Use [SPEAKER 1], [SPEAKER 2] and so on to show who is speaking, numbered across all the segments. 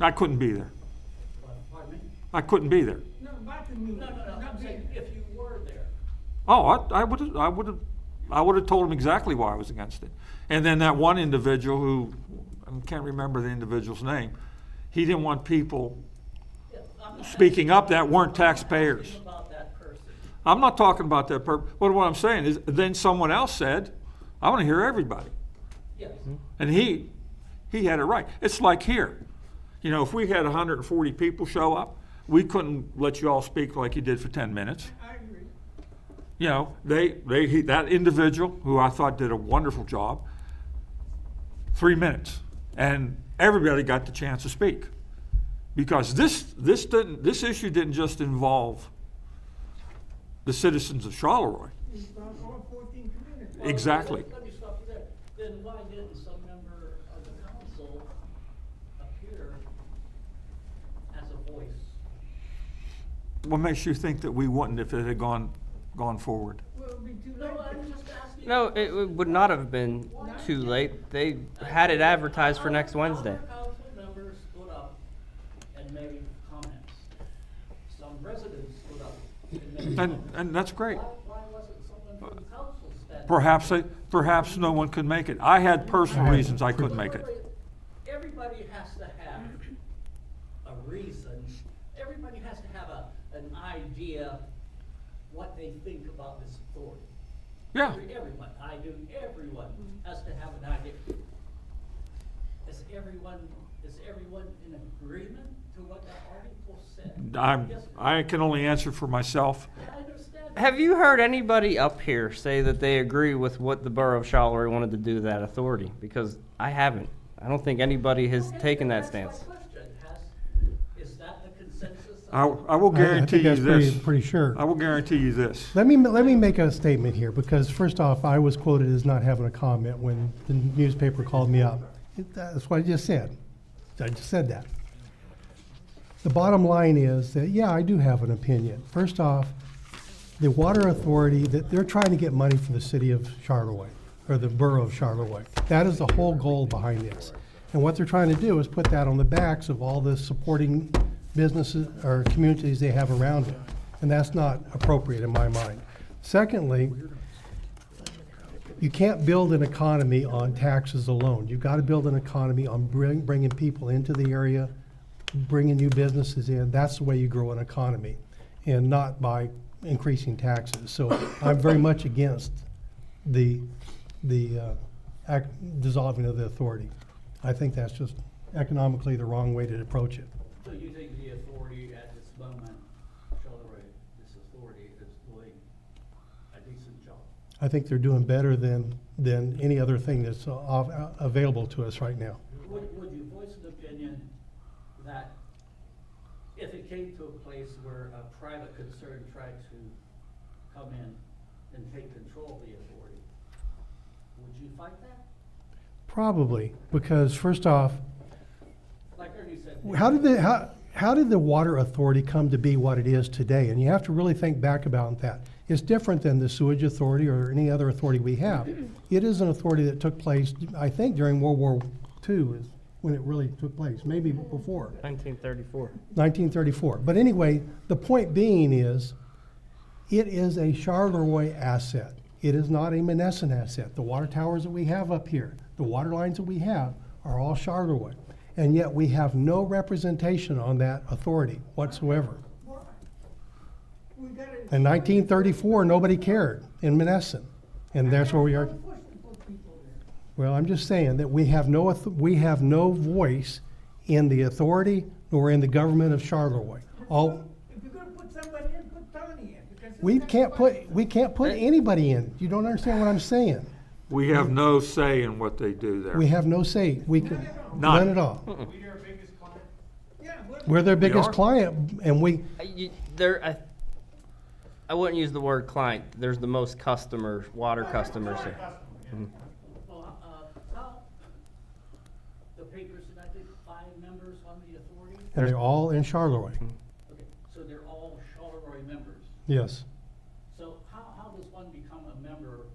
[SPEAKER 1] I couldn't be there.
[SPEAKER 2] Pardon me?
[SPEAKER 1] I couldn't be there.
[SPEAKER 2] No, not the meeting.
[SPEAKER 3] No, no, no, I'm saying if you were there.
[SPEAKER 1] Oh, I, I would have, I would have, I would have told him exactly why I was against it. And then that one individual who, I can't remember the individual's name, he didn't want people
[SPEAKER 3] Yeah, I'm not
[SPEAKER 1] speaking up that weren't
[SPEAKER 3] asking
[SPEAKER 1] taxpayers.
[SPEAKER 3] About that person.
[SPEAKER 1] I'm not talking about that per, what, what I'm saying is, then someone else said, I want to hear everybody.
[SPEAKER 3] Yes.
[SPEAKER 1] And he, he had it right. It's like here, you know, if we had hundred and forty people show up, we couldn't let you all speak like you did for ten minutes.
[SPEAKER 2] I agree.
[SPEAKER 1] you know, they, they, he, that individual who I thought did a wonderful job, three minutes, and everybody got the chance to speak. Because this, this didn't, this issue didn't just involve the citizens of Charleroi.
[SPEAKER 2] It's about all fourteen communities.
[SPEAKER 3] Well, let-
[SPEAKER 1] Exactly.
[SPEAKER 3] Let me stop you there. Then why didn't some member of the council appear as a voice?
[SPEAKER 1] What makes you think that we wouldn't if it had gone, gone forward?
[SPEAKER 2] Well, it'll be too late.
[SPEAKER 3] No, I'm
[SPEAKER 2] then.
[SPEAKER 3] just asking.
[SPEAKER 4] No, it w- would not have been too late. They had it advertised for next Wednesday.
[SPEAKER 3] Other council members stood up and made comments. Some residents stood up and made
[SPEAKER 1] And,
[SPEAKER 3] comments.
[SPEAKER 1] and that's great.
[SPEAKER 3] Why, why wasn't someone from council standing?
[SPEAKER 1] Perhaps, they- perhaps no one could make it. I had personal reasons I couldn't make it.
[SPEAKER 3] Everybody has to have a reason, everybody has to have a, an idea what they think about this authority.
[SPEAKER 1] Yeah,
[SPEAKER 3] Every- Everyone, I do, everyone has to have an idea. Is everyone, is everyone in agreement to what that article said?
[SPEAKER 1] I'm,
[SPEAKER 3] Yes,
[SPEAKER 1] I can only answer for myself.
[SPEAKER 3] I understand.
[SPEAKER 4] Have you heard anybody up here say that they agree with what the borough of Charleroy wanted to do to that authority? Because I haven't. I don't think anybody has
[SPEAKER 3] Okay,
[SPEAKER 4] taken that
[SPEAKER 3] that's my
[SPEAKER 4] stance.
[SPEAKER 3] question. Has- is that the consensus?
[SPEAKER 1] I, I will
[SPEAKER 5] I- I think
[SPEAKER 1] guarantee you
[SPEAKER 5] that's pretty-
[SPEAKER 1] this.
[SPEAKER 5] pretty sure.
[SPEAKER 1] I will guarantee you this.
[SPEAKER 5] Let me, let me make a statement here, because first off, I was quoted as not having a comment when the newspaper called me up. It- That's what I just said. I just said that. The bottom line is that, yeah, I do have an opinion. First off, the water authority, that they're trying to get money from the city of Charleroi, or the borough of Charleroi. That is the whole goal behind this. And what they're trying to do is put that on the backs of all the supporting businesses or communities they have around it. And that's not appropriate in my mind. Secondly, you can't build an economy on taxes alone. You've got to build an economy on bring, bringing people into the area, bringing new businesses in. That's the way you grow an economy, and not by increasing taxes. So I'm very much against the the uh, ac dissolving of the authority. I think that's just economically the wrong way to approach it.
[SPEAKER 3] So you think the authority at this moment, Charleroi, this authority is doing a decent job?
[SPEAKER 5] I think they're doing better than than any other thing that's uh, av- uh, available to us right now.
[SPEAKER 3] Would, would you voice an opinion that if it came to a place where a private concern tried to come in and take control of the authority, would you fight that?
[SPEAKER 5] Probably because first off,
[SPEAKER 3] Like Ernie said.
[SPEAKER 5] How did the how, how did the water authority come to be what it is today? And you have to really think back about that. It's different than the sewage authority or any other authority we have. It is an authority that took place, I think, during World War II is when it really took place, maybe before.
[SPEAKER 4] 1934.
[SPEAKER 5] 1934. But anyway, the point being is, it is a Charleroi asset. It is not a Menneson asset. The water towers that we have up here, the water lines that we have, are all Charleroi. And yet we have no representation on that authority whatsoever.
[SPEAKER 2] Why? We gotta.
[SPEAKER 5] In 1934, nobody cared in Menneson, and that's where we are.
[SPEAKER 2] Push to put people there.
[SPEAKER 5] Well, I'm just saying that we have no, auth- we have no voice in the authority nor in the government of Charleroi. All,
[SPEAKER 2] If you're gonna put somebody in, put Tony in, because.
[SPEAKER 5] Oh. We
[SPEAKER 2] it's
[SPEAKER 5] can't
[SPEAKER 2] not
[SPEAKER 5] put, we can't put anybody in. You don't understand what I'm saying.
[SPEAKER 1] We have no say in what they do there.
[SPEAKER 5] We have no say. We can,
[SPEAKER 1] None.
[SPEAKER 5] none at all.
[SPEAKER 2] Yeah, what?
[SPEAKER 5] We're their
[SPEAKER 1] are.
[SPEAKER 5] biggest client and we,
[SPEAKER 4] I- you- There, I, I wouldn't use the word client. There's the most customers, water customers here.
[SPEAKER 3] Well, uh, how, the papers said, I think, five members on the authority?
[SPEAKER 5] and they're all in Charleroi.
[SPEAKER 3] Okay, so they're all Charleroi members.
[SPEAKER 5] Yes.
[SPEAKER 3] So how, how does one become a member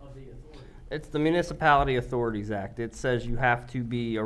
[SPEAKER 3] of the authority?
[SPEAKER 4] It's the Municipality Authorities Act. It says you have to be a